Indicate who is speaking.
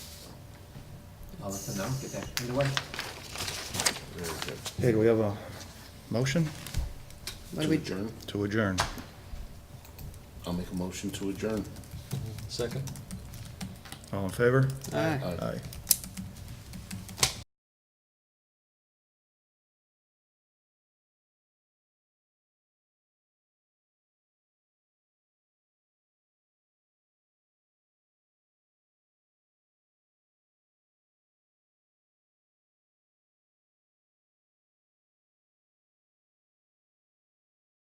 Speaker 1: I'll let them know, get that cleared away.
Speaker 2: Okay, do we have a motion
Speaker 3: To adjourn?
Speaker 2: to adjourn?
Speaker 3: I'll make a motion to adjourn.
Speaker 4: Second?
Speaker 2: All in favor?
Speaker 3: Aye.
Speaker 2: Aye.